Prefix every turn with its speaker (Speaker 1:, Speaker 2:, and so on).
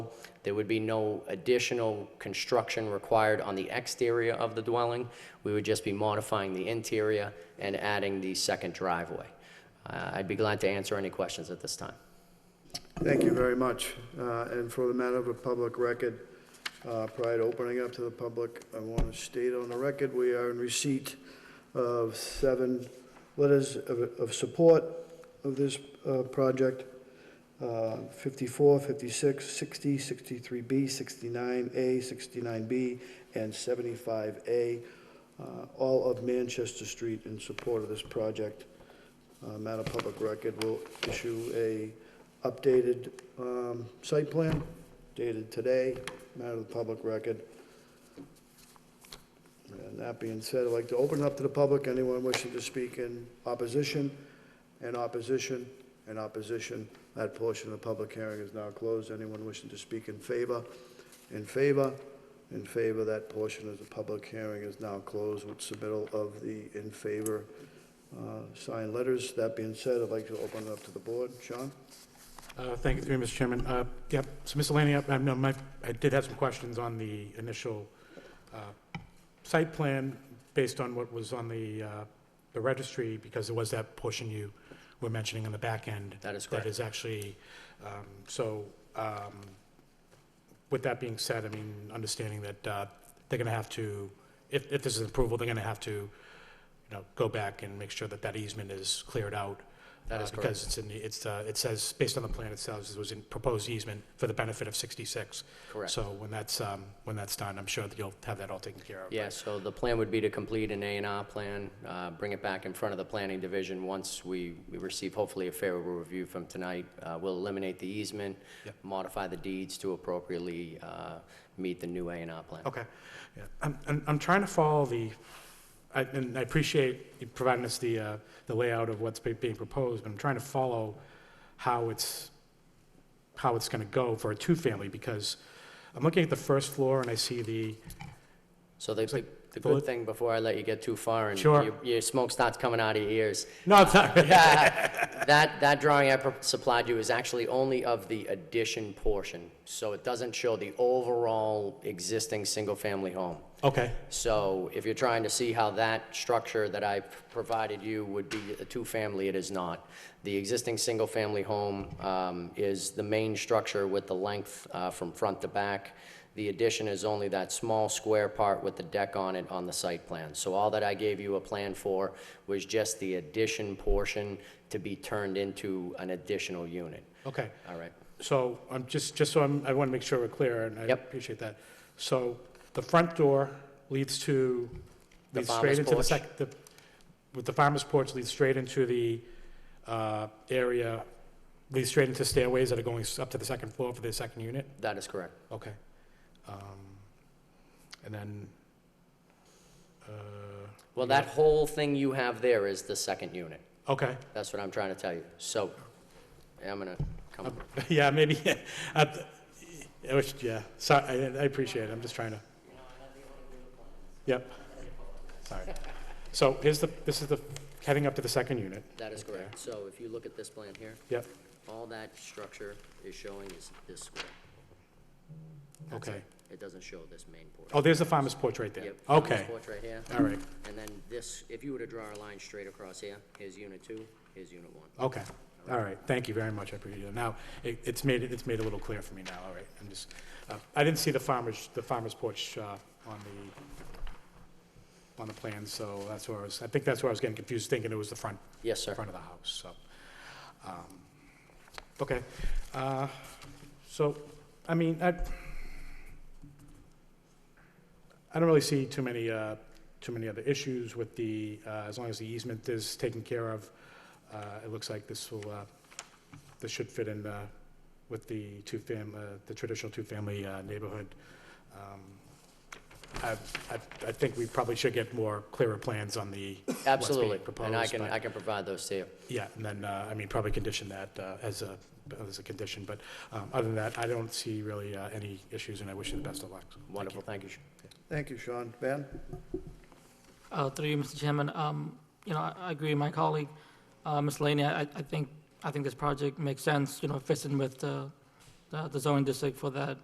Speaker 1: There would be no additional construction required on the exterior of the dwelling. We would just be modifying the interior and adding the second driveway. Uh, I'd be glad to answer any questions at this time.
Speaker 2: Thank you very much. Uh, And for the matter of a public record, uh, prior to opening up to the public, I want to state on the record, we are in receipt of seven letters of, of support of this uh, project. Uh, 54, 56, 60, 63B, 69A, 69B, and 75A, uh, all of Manchester Street in support of this project. Uh, Matter of Public Record will issue a updated um, site plan dated today, matter of the public record. And that being said, I'd like to open it up to the public, anyone wishing to speak in opposition, in opposition, in opposition. That portion of the public hearing is now closed. Anyone wishing to speak in favor, in favor, in favor, that portion of the public hearing is now closed with submittal of the in favor uh, signed letters. That being said, I'd like to open it up to the board. Sean?
Speaker 3: Uh, Thank you, through you, Mr. Chairman. Uh, Yep, so Mr. Lanning, I- I know my- I did have some questions on the initial uh, site plan based on what was on the uh, the registry, because there was that portion you were mentioning on the back end.
Speaker 1: That is
Speaker 3: That
Speaker 1: correct.
Speaker 3: is actually, um, so um, with that being said, I mean, understanding that uh, they're going to have to, if if this is approval, they're going to have to, you know, go back and make sure that that easement is cleared out.
Speaker 1: That
Speaker 3: uh,
Speaker 1: is correct.
Speaker 3: Because it's in the, it's, uh, it says, based on the plan itself, it was in proposed easement for the benefit of 66.
Speaker 1: Correct.
Speaker 3: So when that's, um, when that's done, I'm sure that you'll have that all taken care of.
Speaker 1: Yeah, so the plan would be to complete an A and R plan, uh, bring it back in front of the planning division once we, we receive hopefully a favorable review from tonight. Uh, We'll eliminate the easement,
Speaker 3: Yep.
Speaker 1: modify the deeds to appropriately uh, meet the new A and R plan.
Speaker 3: Okay. Yeah. I'm, I'm, I'm trying to follow the, I, and I appreciate you providing us the, uh, the layout of what's be- being proposed, but I'm trying to follow how it's, how it's gonna go for a two-family, because I'm looking at the first floor and I see the,
Speaker 1: So the, the- the
Speaker 3: Well,
Speaker 1: good thing, before I let you get too far and
Speaker 3: Sure.
Speaker 1: your- your smoke starts coming out of your ears,
Speaker 3: no, it's not,
Speaker 1: That, that drawing I pro- supplied you is actually only of the addition portion, so it doesn't show the overall existing single-family home.
Speaker 3: okay.
Speaker 1: So if you're trying to see how that structure that I provided you would be a two-family, it is not. The existing single-family home um, is the main structure with the length uh, from front to back. The addition is only that small square part with the deck on it on the site plan. So all that I gave you a plan for was just the addition portion to be turned into an additional unit.
Speaker 3: Okay.
Speaker 1: All right?
Speaker 3: So I'm just, just so I'm, I want to make sure we're clear, and I
Speaker 1: Yep.
Speaker 3: appreciate that. So the front door leads to,
Speaker 1: The
Speaker 3: leads straight
Speaker 1: farmer's
Speaker 3: into the
Speaker 1: porch.
Speaker 3: sec, the, with the farmer's porch leads straight into the, uh, area, leads straight into stairways that are going s- up to the second floor for the second unit?
Speaker 1: That is correct.
Speaker 3: Okay. Um, And then, uh,
Speaker 1: Well, that whole thing you have there is the second unit.
Speaker 3: okay.
Speaker 1: That's what I'm trying to tell you. So, I'm gonna come,
Speaker 3: Yeah, maybe, I, I wish, yeah, so, I, I appreciate it, I'm just trying to. Yep, sorry. So here's the, this is the, heading up to the second unit,
Speaker 1: that is correct. So if you look at this plan here,
Speaker 3: yep,
Speaker 1: all that structure is showing is this square. That's
Speaker 3: okay.
Speaker 1: it. It doesn't show this main porch.
Speaker 3: Oh, there's the farmer's porch right there,
Speaker 1: Yep, farmer's
Speaker 3: okay,
Speaker 1: Porch right here,
Speaker 3: all right,
Speaker 1: and then this, if you were to draw a line straight across here, here's unit two, here's unit one.
Speaker 3: okay, all right, thank you very much, I appreciate it. Now, it, it's made, it- it's made a little clear for me now, all right, I'm just, uh, I didn't see the farmer's, the farmer's porch, uh, on the, on the plan, so that's where I was, I think that's where I was getting confused, thinking it was the front,
Speaker 1: Yes, sir.
Speaker 3: front of the house, so. um, Okay, uh, so, I mean, I, I don't really see too many, uh, too many other issues with the, uh, as long as the easement is taken care of, uh, it looks like this will, uh, this should fit in uh, with the two-fam, uh, the traditional two-family uh, neighborhood. Um, I, I I think we probably should get more clearer plans on the. what's being
Speaker 1: Absolutely, and I
Speaker 3: proposed,
Speaker 1: can,
Speaker 3: but-
Speaker 1: I can provide those to you.
Speaker 3: yeah, and then, uh, I mean, probably condition that uh, as a, as a condition, but um, other than that, I don't see really uh, any issues, and I wish you the best of luck. Thank you.
Speaker 1: Wonderful, thank you.
Speaker 2: Thank you, Sean. Ben?
Speaker 4: Uh, Through you, Mr. Chairman, Um, you know, I I agree with my colleague, uh, Ms. Laney. I I think, I think this project makes sense, you know, fits in with the the- the zoning district for that